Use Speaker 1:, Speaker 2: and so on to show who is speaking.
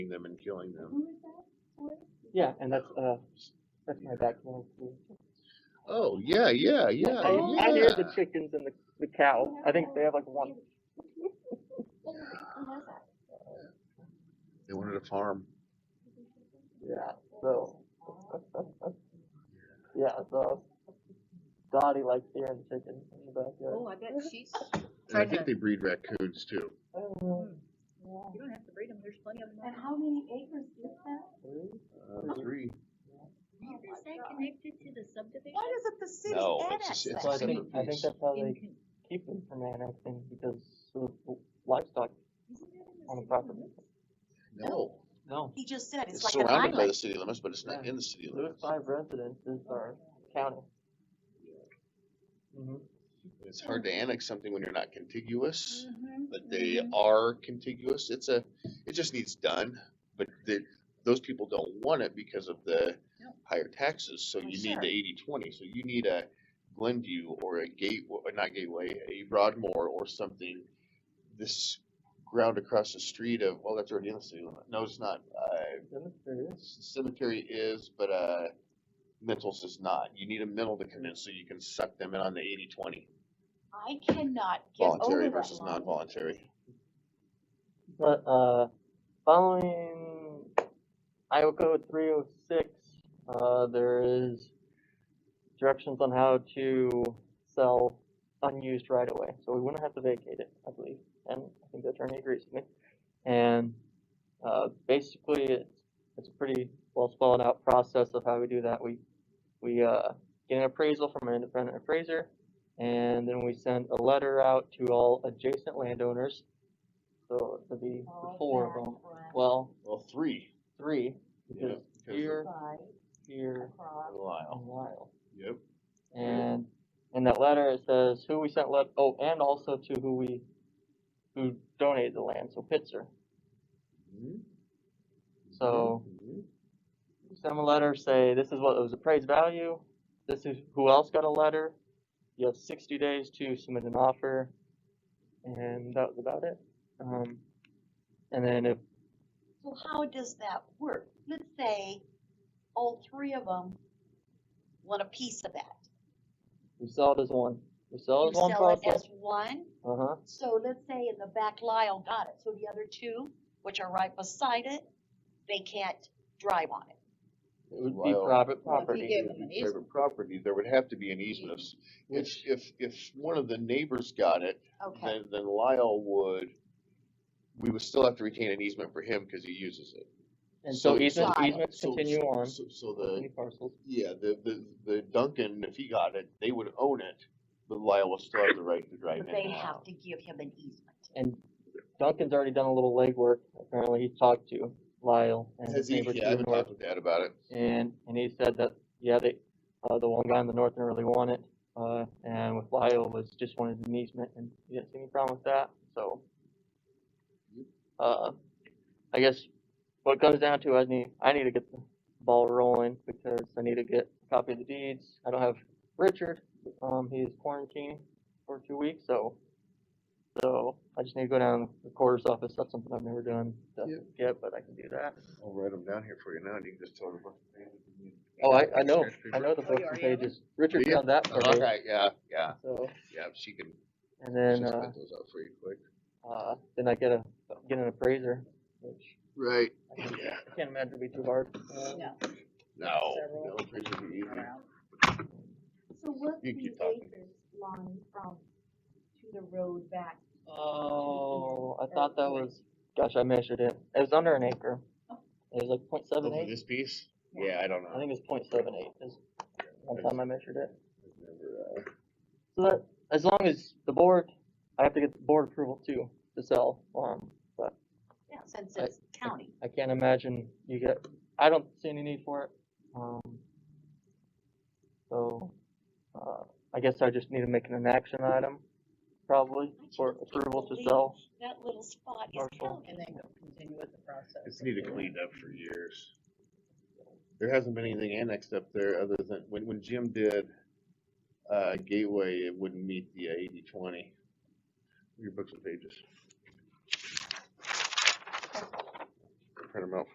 Speaker 1: them and killing them.
Speaker 2: Who is that? Sorry?
Speaker 3: Yeah, and that's uh, that's my background. too.
Speaker 1: Oh yeah, yeah, yeah,
Speaker 3: I,
Speaker 2: Oh,
Speaker 3: I hear the
Speaker 1: yeah.
Speaker 3: chickens and the, the cow. I think they have like one.
Speaker 2: Who has that?
Speaker 1: They wanted a farm.
Speaker 3: Yeah. So. yeah. So. Dottie likes hearing the chickens in the backyard.
Speaker 4: Oh, I bet she's,
Speaker 1: And I think
Speaker 4: Pregnant.
Speaker 1: they breed raccoons too.
Speaker 4: you don't have to breed them, there's plenty of them.
Speaker 2: And how many acres is that?
Speaker 3: Mm-hmm.
Speaker 1: Uh, three.
Speaker 4: Is that connected to the subdivision?
Speaker 5: Why doesn't the city
Speaker 1: No, it's
Speaker 5: annex
Speaker 1: just- it's
Speaker 5: that?
Speaker 3: Well, I think I think
Speaker 1: piece.
Speaker 3: that's how
Speaker 4: In
Speaker 3: they
Speaker 4: con-
Speaker 3: keep them from annexing because of the livestock
Speaker 4: isn't that in the
Speaker 3: on the
Speaker 4: city
Speaker 3: property.
Speaker 4: limits?
Speaker 1: No,
Speaker 3: No.
Speaker 5: He just said,
Speaker 1: it's
Speaker 5: it's like an
Speaker 1: surrounded by
Speaker 5: island.
Speaker 1: the city limits, but it's not
Speaker 3: Yeah.
Speaker 1: in the city
Speaker 3: Those
Speaker 1: limits.
Speaker 3: five residences are county. Mm-hmm.
Speaker 1: It's hard to annex something when you're not contiguous,
Speaker 4: Mm-hmm.
Speaker 1: but they are contiguous. It's a, it just needs done. But the, those people don't want it because of the
Speaker 4: No.
Speaker 1: higher taxes, so
Speaker 5: Oh,
Speaker 1: you need
Speaker 5: sure.
Speaker 1: the eighty twenty, so you need a Glenview or a Gateway, uh, not Gateway, a Broadmoor or something. This ground across the street of, well, that's already in the city limit. No, it's not. Uh, cemetery is, but uh, mentals is not. You need a mental to come in so you can suck them in on the 80 20
Speaker 5: I cannot get over
Speaker 1: voluntary
Speaker 5: that
Speaker 1: versus
Speaker 5: line.
Speaker 1: non voluntary.
Speaker 3: But uh, following Iowa Code 306, uh, there is directions on how to sell unused right away. So we wouldn't have to vacate it, I believe. And I think the attorney agrees with me. And uh, basically, it's, it's a pretty well spelled out process of how we do that. We we uh, get an appraisal from an independent appraiser, and then we send a letter out to all adjacent landowners. So it would be the
Speaker 5: Oh,
Speaker 3: four
Speaker 5: that's
Speaker 3: of them.
Speaker 5: right.
Speaker 3: Well,
Speaker 1: Well, three.
Speaker 3: three
Speaker 1: Yeah,
Speaker 3: because
Speaker 1: because
Speaker 3: here,
Speaker 5: Right,
Speaker 3: here,
Speaker 5: across.
Speaker 1: of Lyle.
Speaker 3: and Lyle.
Speaker 1: Yep.
Speaker 3: And in that letter, it says who we sent let. Oh, and also to who we who donated the land. So Pitzer. So
Speaker 1: Mhm.
Speaker 3: send them a letter. Say this is what it was appraised value. This is who else got a letter. You have 60 days to submit an offer, and that was about it. Um, and then if
Speaker 5: So how does that work? Let's say all three of them want a piece of that.
Speaker 3: we sell it as one, we sell
Speaker 5: You
Speaker 3: it as one
Speaker 5: sell it
Speaker 3: process.
Speaker 5: as one,
Speaker 3: Uh huh.
Speaker 5: so let's say in the back Lyle got it, so the other two, which are right beside it, they can't drive on it.
Speaker 3: It would be
Speaker 1: Lyle.
Speaker 3: private
Speaker 4: Well, if you
Speaker 3: property.
Speaker 4: give
Speaker 1: If
Speaker 4: them
Speaker 1: you
Speaker 4: an
Speaker 1: favor
Speaker 4: easement.
Speaker 1: property, there would have to be an easement. If, if, if, if one of the neighbors got it,
Speaker 5: Okay,
Speaker 1: then, then Lyle would, we would still have to retain an easement for him because he uses it.
Speaker 3: And so easements,
Speaker 5: Right.
Speaker 3: easements
Speaker 1: so-
Speaker 3: continue on.
Speaker 1: So, so
Speaker 3: with
Speaker 1: the,
Speaker 3: any parcels.
Speaker 1: Yeah, the, the, the Duncan, if he got it, they would own it, but Lyle will still have the right to drive in
Speaker 5: but they
Speaker 1: and
Speaker 5: have
Speaker 1: out.
Speaker 5: to give him an easement.
Speaker 3: And Duncan's already done a little legwork. Apparently, he's talked to Lyle and
Speaker 1: Has
Speaker 3: his
Speaker 1: he, yeah,
Speaker 3: neighbor
Speaker 1: I
Speaker 3: to the
Speaker 1: haven't
Speaker 3: north,
Speaker 1: talked with Dad about it.
Speaker 3: and and he said that yeah, they uh, the one guy in the north didn't really want it, uh, and with Lyle was just wanted an easement, and he didn't see any problem with that. So, uh, I guess what it comes down to, I need I need to get the ball rolling because I need to get a copy of the deeds. I don't have Richard. Um, he is quarantining for two weeks, so so I just need to go down to the quarters office. That's something I've never done to
Speaker 1: Yeah.
Speaker 3: get, but I can do that.
Speaker 1: I'll write them down here for you now, and you can just tell them.
Speaker 3: Oh, I, I know I know the books
Speaker 4: Oh, you
Speaker 3: and
Speaker 4: already have
Speaker 3: pages. Richard
Speaker 1: Yeah.
Speaker 3: found that for me.
Speaker 1: Okay, yeah, yeah,
Speaker 3: So
Speaker 1: yeah, she can,
Speaker 3: and
Speaker 1: she'll
Speaker 3: then uh,
Speaker 1: spit those out for you quick.
Speaker 3: uh, then I get a get an appraiser, which
Speaker 1: Right,
Speaker 3: I can't, I can't imagine would be too hard. Uh,
Speaker 4: No.
Speaker 1: no,
Speaker 4: Several.
Speaker 1: no, it should be easy.
Speaker 4: Around.
Speaker 2: So what's the
Speaker 1: You keep talking.
Speaker 2: acres line from to the road back?
Speaker 3: Oh, I thought that was. Gosh, I measured it. It was under an acre. It was like point seven
Speaker 1: Over
Speaker 3: eight.
Speaker 1: this piece? Yeah, I don't
Speaker 3: I
Speaker 1: know.
Speaker 3: think it's point seven eight is one time I measured it.
Speaker 1: I've never, uh,
Speaker 3: So that, as long as the board, I have to get the board approval too, to sell, um, but
Speaker 5: Yeah, since
Speaker 3: I-
Speaker 5: it's county.
Speaker 3: I can't imagine you get, I don't see any need for it, um. So, uh, I guess I just need to make it an action item, probably, for approval to sell.
Speaker 5: That little spot is
Speaker 3: Parcel.
Speaker 5: counted.
Speaker 4: And then go continue with the process.
Speaker 1: It's needed cleaned up for years. There hasn't been anything annexed up there other than, when, when Jim did, uh, Gateway, it wouldn't meet the uh, eighty twenty. Your books and pages. print them out